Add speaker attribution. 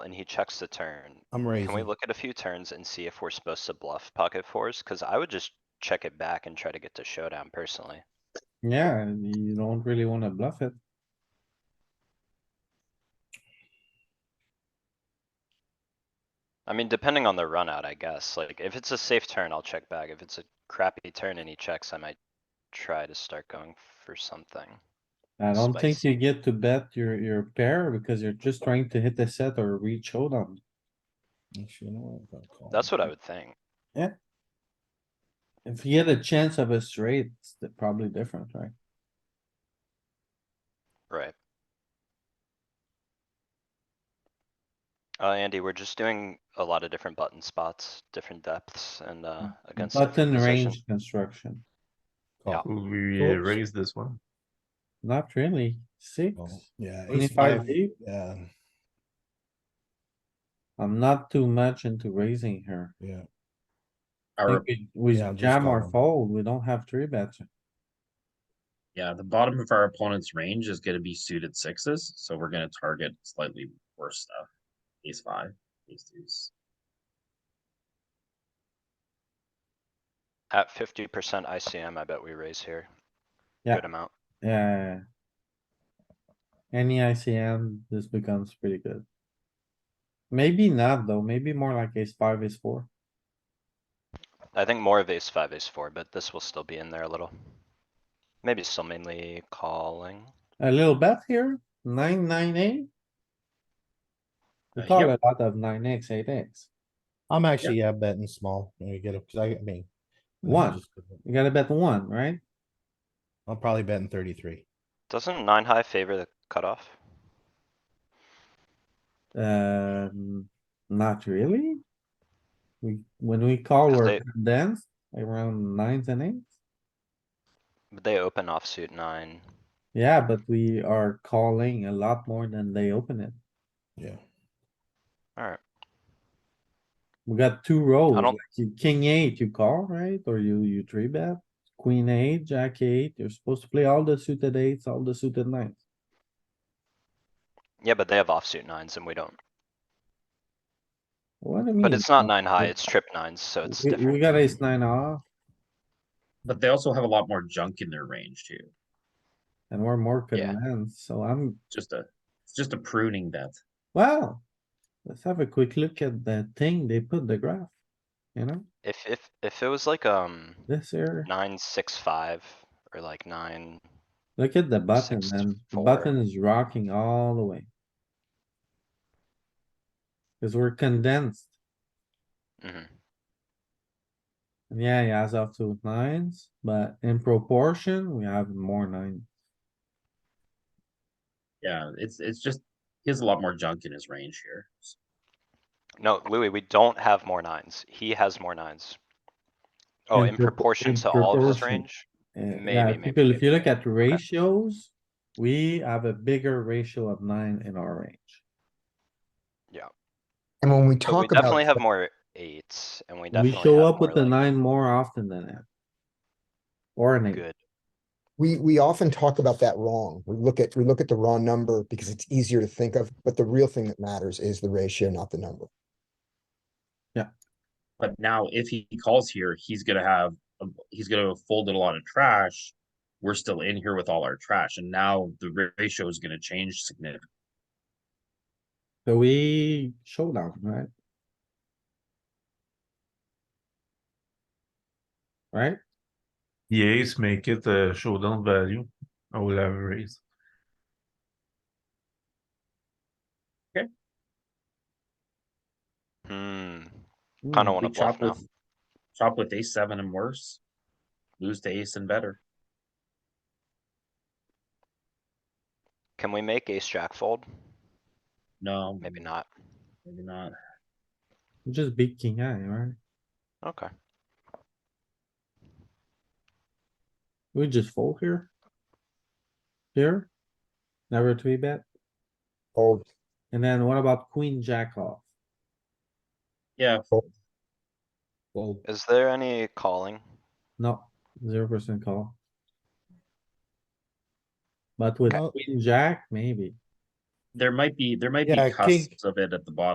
Speaker 1: and he checks the turn.
Speaker 2: I'm
Speaker 1: Can we
Speaker 2: raising.
Speaker 1: look at a few turns and see if we're supposed to bluff pocket fours? Cause I would just check it back and try to get to showdown personally.
Speaker 3: Yeah, and you don't really wanna bluff it.
Speaker 1: I mean, depending on the run out, I guess. Like, if it's a safe turn, I'll check back. If it's a crappy turn and he checks, I might try to start going for something.
Speaker 3: I don't think
Speaker 1: Spicy.
Speaker 3: you get to bet your, your pair because you're just trying to hit the set or reach showdown.
Speaker 2: Actually, you know what, I'm gonna call
Speaker 1: That's
Speaker 2: it.
Speaker 1: what I would think.
Speaker 3: If you get a chance of a straight, it's di- probably different, right?
Speaker 1: Right. Uh, Andy, we're just doing a lot of different button spots, different depths and, uh, against. different
Speaker 3: Mm. Button
Speaker 1: position.
Speaker 3: range construction,
Speaker 2: Call.
Speaker 4: Will we uh,
Speaker 3: Oops.
Speaker 4: raise this one?
Speaker 3: not really, six,
Speaker 2: Call. Yeah, ace
Speaker 3: twenty-five
Speaker 2: five,
Speaker 3: deep,
Speaker 2: yeah,
Speaker 3: I'm not too much into raising here.
Speaker 2: yeah,
Speaker 3: I
Speaker 5: Our,
Speaker 3: think We
Speaker 2: Yeah,
Speaker 3: we
Speaker 2: I'm just
Speaker 3: jam or
Speaker 2: calling.
Speaker 3: fold, we don't have three bets,
Speaker 5: yeah, the bottom of our opponent's range is gonna be suited sixes, so we're gonna target slightly worse stuff. Ace five, ace deuce.
Speaker 1: At fifty percent ICM, I bet we raise here.
Speaker 3: Yeah.
Speaker 1: Good amount.
Speaker 3: yeah. Any ICM, this becomes pretty good. Maybe not though, maybe more like ace five, ace four.
Speaker 1: I think more of ace five, ace four, but this will still be in there a little. Maybe still mainly calling.
Speaker 3: A little bet here, nine, nine, eight. We
Speaker 5: Uh,
Speaker 3: call a
Speaker 5: yep.
Speaker 3: lot of nine X, eight X.
Speaker 2: I'm actually, yeah, betting small, when you get it, cause I, I mean.
Speaker 5: Mm-hmm.
Speaker 2: I'm
Speaker 3: One.
Speaker 2: just-
Speaker 3: You gotta bet one, right?
Speaker 2: I'm probably betting thirty-three,
Speaker 1: Doesn't nine high favor the cutoff?
Speaker 3: Um, not really. We, when we call,
Speaker 1: Cause
Speaker 3: we're
Speaker 1: they-
Speaker 3: condensed around nines and eights.
Speaker 1: But They open offsuit nine.
Speaker 3: Yeah, but we are calling a lot more than they open it.
Speaker 2: yeah.
Speaker 1: Alright,
Speaker 3: We got two rows,
Speaker 1: don't-
Speaker 3: like you- king eight, you call, right? Or you, you three bet, queen eight, jack eight, you're supposed to play all the suited eights, all the suited nines.
Speaker 1: yeah, but they have offsuit nines and we don't.
Speaker 3: What do you mean?
Speaker 1: But it's not
Speaker 3: no?
Speaker 1: nine high,
Speaker 3: We-
Speaker 1: it's trip nines, so it's
Speaker 3: we- We
Speaker 1: different.
Speaker 3: got ace nine off
Speaker 5: But they also have a lot more junk in their range too.
Speaker 3: and we're more
Speaker 1: Yeah.
Speaker 3: condensed, so I'm,
Speaker 5: Just a, it's just a pruning bet.
Speaker 3: well. Let's have a quick look at the thing they put the graph, you know,
Speaker 1: If, if, if it was like, um,
Speaker 3: this here,
Speaker 1: nine, six, five, or like nine,
Speaker 3: look at the button
Speaker 1: Six,
Speaker 3: and the
Speaker 1: four.
Speaker 3: button is rocking all the way. Cause we're condensed.
Speaker 1: mhm,
Speaker 3: And Yeah, he has up to nines, but in proportion, we have more nine.
Speaker 5: Yeah, it's, it's just, he has a lot more junk in his range here.
Speaker 1: no, Louis, we don't have more nines, he has more nines. Oh,
Speaker 3: In
Speaker 1: in
Speaker 3: propor- in
Speaker 1: proportion to all of his
Speaker 3: proportion.
Speaker 1: range?
Speaker 3: Uh,
Speaker 1: Maybe,
Speaker 3: yeah,
Speaker 1: maybe,
Speaker 3: people, if
Speaker 1: maybe.
Speaker 3: you look at ratios, we have a bigger ratio of nine in our range.
Speaker 6: And when we
Speaker 1: But we
Speaker 6: talk about,
Speaker 1: definitely have more eights and we
Speaker 3: We
Speaker 1: definitely have
Speaker 3: show up
Speaker 1: more
Speaker 3: with the
Speaker 1: like
Speaker 3: nine more often than that. Or an eight.
Speaker 1: good.
Speaker 6: we, we often talk about that wrong. We look at, we look at the raw number because it's easier to think of, but the real thing that matters is the ratio, not the number.
Speaker 5: But now if he calls here, he's gonna have, a- he's gonna have folded a lot of trash. We're still in here with all our trash and now the ra- ratio is gonna change significantly.
Speaker 3: So we showdown, right? Right?
Speaker 4: The ace make it a showdown value. I will have a raise.
Speaker 1: Hmm,
Speaker 3: Hmm,
Speaker 1: kinda wanna
Speaker 5: We chop
Speaker 1: bluff now.
Speaker 5: with, chop with ace seven and worse. Lose to ace and better.
Speaker 1: Can we make ace jack fold?
Speaker 5: No,
Speaker 1: Maybe not.
Speaker 5: maybe not.
Speaker 3: Just big king high, right?
Speaker 1: Okay,
Speaker 3: We just fold here. Here. Never three bet.
Speaker 6: Fold,
Speaker 3: And then what about queen jack off?
Speaker 5: Yeah,
Speaker 2: Well.
Speaker 1: is there any calling?
Speaker 3: No, zero percent call. But with
Speaker 2: Okay.
Speaker 3: queen jack, maybe.
Speaker 5: there might be, there might be
Speaker 2: Yeah, king-
Speaker 5: cusps of it at the bottom.